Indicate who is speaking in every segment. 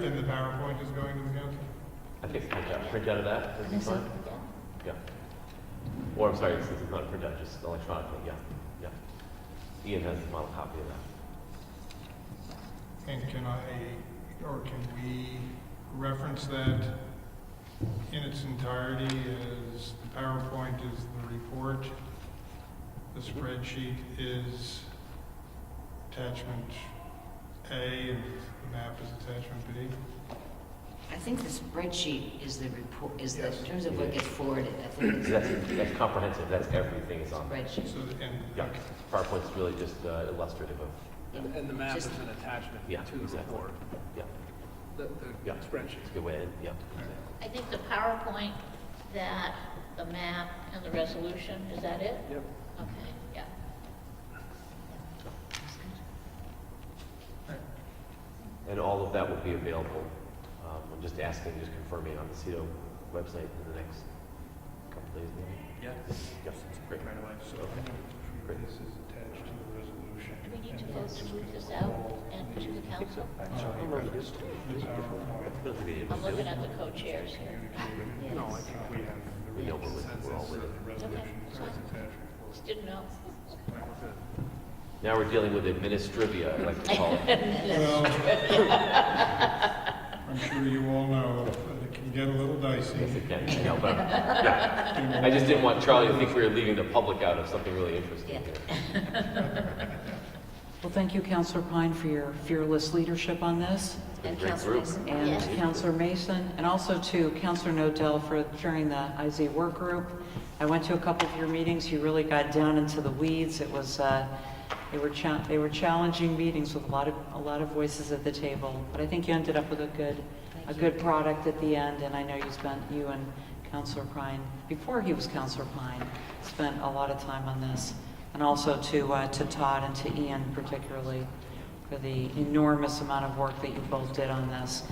Speaker 1: PowerPoint is going to the council?
Speaker 2: I think it's print out, print out of that, that'd be fine, yeah. Or, I'm sorry, this this is not a printout, just electronically, yeah, yeah. Ian has the model copy of that.
Speaker 1: And can I, or can we reference that in its entirety as the PowerPoint is the report? The spreadsheet is attachment A and the map is attachment B?
Speaker 3: I think the spreadsheet is the report, is the,
Speaker 1: Yes.
Speaker 3: in terms of what gets forwarded, I think it's
Speaker 2: That's, that's comprehensive, that's everything is on there.
Speaker 3: spreadsheet.
Speaker 1: So, and,
Speaker 2: Yeah, PowerPoint's really just uh, illustrative of,
Speaker 4: And and the map is
Speaker 3: Just-
Speaker 4: an attachment
Speaker 2: Yeah,
Speaker 4: to the
Speaker 2: exactly.
Speaker 4: report,
Speaker 2: yeah,
Speaker 4: the the
Speaker 2: Yeah.
Speaker 4: spreadsheet.
Speaker 2: it's a good way, in, yeah.
Speaker 5: I think the PowerPoint, that, the map, and the resolution, is that it?
Speaker 4: Yep.
Speaker 5: Okay, yeah.
Speaker 2: And all of that will be available, um, I'm just asking, just confirming on the CETO website in the next couple days, maybe?
Speaker 4: Yeah.
Speaker 2: Yes, great.
Speaker 4: Right away.
Speaker 1: so I'm gonna, this is attached to the resolution.
Speaker 5: Do we need to
Speaker 1: and
Speaker 5: vote
Speaker 1: that's
Speaker 5: to
Speaker 1: just
Speaker 5: move
Speaker 1: gonna
Speaker 5: this
Speaker 1: go
Speaker 5: out
Speaker 1: all
Speaker 5: and
Speaker 1: the-
Speaker 5: to the council?
Speaker 1: uh,
Speaker 2: Oh, right, yes.
Speaker 1: The PowerPoint.
Speaker 2: I don't think we need to
Speaker 5: I'm
Speaker 2: do
Speaker 5: looking
Speaker 2: it.
Speaker 5: at the co-chairs here.
Speaker 3: Yes.
Speaker 4: No, I think we have,
Speaker 2: We know we're with, we're all with it.
Speaker 5: Okay, fine. Just didn't know.
Speaker 2: Now we're dealing with administrivia, I like to call it.
Speaker 1: Well, I'm sure you all know that it can get a little dicey.
Speaker 2: Yes, it can. No, but- yeah. I just didn't want Charlie to think we were leaving the public out of something really interesting
Speaker 3: Yeah.
Speaker 2: here.
Speaker 6: Well, thank you, Counselor Pine, for your fearless leadership on this,
Speaker 2: It's been a
Speaker 3: And
Speaker 2: great
Speaker 3: Council
Speaker 2: group.
Speaker 3: Mason.
Speaker 6: and
Speaker 5: Yes.
Speaker 6: Counselor Mason, and also to Counselor Nodell for chairing the IZ work group. I went to a couple of your meetings, you really got down into the weeds. It was, uh, they were cha- they were challenging meetings with a lot of, a lot of voices at the table, but I think you ended up with a good, a
Speaker 3: Thank you.
Speaker 6: good product at the end, and I know you spent, you and Counselor Pine, before he was Counselor Pine, spent a lot of time on this, and also to, uh, to Todd and to Ian particularly, for the enormous amount of work that you both did on this.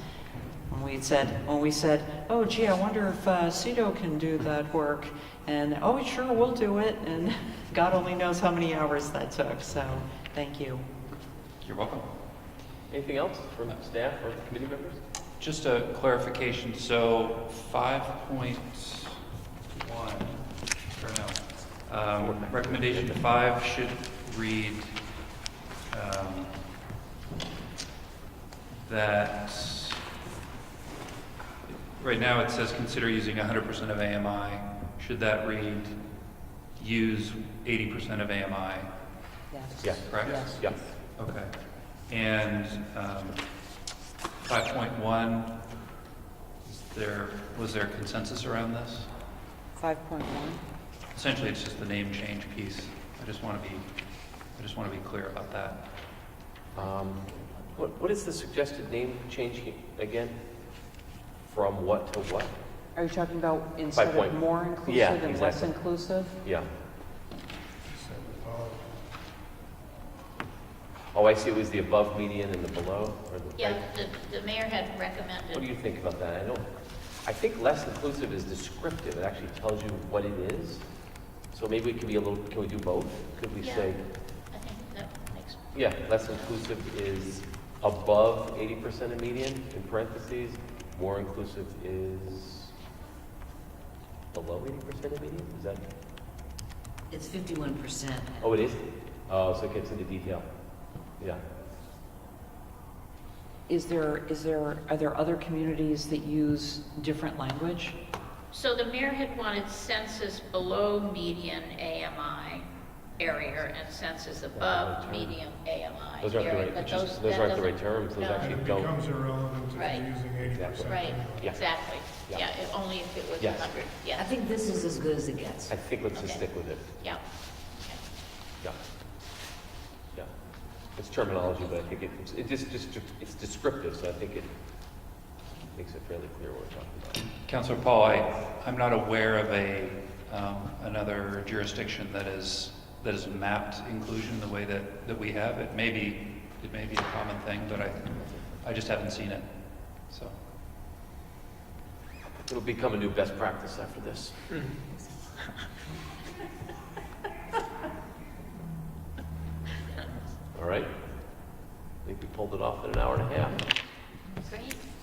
Speaker 6: When we said, when we said, oh gee, I wonder if uh, CETO can do that work, and oh, sure, we'll do it, and God only knows how many hours that took, so, thank you.
Speaker 7: You're welcome.
Speaker 2: Anything else from staff or committee members?
Speaker 7: Just a clarification, so five point one, or no, um, recommendation five should read, um, that, right now it says consider using hundred percent of AMI. Should that read, use eighty percent of AMI,
Speaker 2: Yeah.
Speaker 7: correct?
Speaker 2: Yeah.
Speaker 7: Okay. And um, 5.1, is there, was there consensus around this?
Speaker 6: Five point one.
Speaker 7: Essentially, it's just the name change piece. I just want to be, I just want to be clear about that.
Speaker 2: Um, What, what is the suggested name change he- again? From what to what?
Speaker 6: Are you talking about instead of
Speaker 2: point-
Speaker 6: more
Speaker 2: yeah,
Speaker 6: inclusive and less
Speaker 2: exactly.
Speaker 6: inclusive?
Speaker 2: Yeah.
Speaker 1: So, uh,
Speaker 2: Oh, I see, it was the above median and the below, or the?
Speaker 5: Yeah,
Speaker 2: I-
Speaker 5: the, the mayor had recommended.
Speaker 2: What do you think about that? I don't, I think less inclusive is descriptive, it actually tells you what it is. So maybe it could be a little, can we do both? Could we
Speaker 5: Yeah.
Speaker 2: say,
Speaker 5: I think that makes,
Speaker 2: yeah, less inclusive is above eighty percent of median, in parentheses, more inclusive is below eighty percent of median, is that,
Speaker 3: It's fifty-one percent.
Speaker 2: oh, it is? Oh, so it gets into detail, yeah.
Speaker 6: Is there, is there, are there other communities that use different language?
Speaker 5: so the mayor had wanted census below median AMI area and census above median AMI
Speaker 2: Those aren't the
Speaker 5: area.
Speaker 2: right,
Speaker 5: but
Speaker 2: it's just-
Speaker 5: those-
Speaker 2: those
Speaker 5: that
Speaker 2: aren't the
Speaker 5: doesn't-
Speaker 2: right terms, those
Speaker 5: No.
Speaker 1: And
Speaker 2: actually
Speaker 1: it
Speaker 2: don't.
Speaker 1: becomes irrelevant if
Speaker 5: Right.
Speaker 1: you're using eighty percent.
Speaker 5: Right,
Speaker 2: Yeah.
Speaker 5: exactly.
Speaker 2: Yeah.
Speaker 5: Yeah, if only if it was
Speaker 2: Yes.
Speaker 5: 100,
Speaker 3: I
Speaker 5: yeah,
Speaker 3: think this is as good as it gets.
Speaker 2: I think let's just
Speaker 5: Okay.
Speaker 2: stick with it.
Speaker 5: yeah.
Speaker 2: Yeah. Yeah. It's terminology, but I think it, it's- it just, just, it's descriptive, so I think it makes it fairly clear what we're talking
Speaker 7: Counselor Paul, I, I'm not aware of a, um, another jurisdiction that is, that is mapped inclusion the way that, that we have. It may be, it may be a common thing, but I, I just haven't seen it, so.
Speaker 2: about. It'll become a new best practice after this. All right. I think we pulled it off in an hour and a half.
Speaker 5: Great.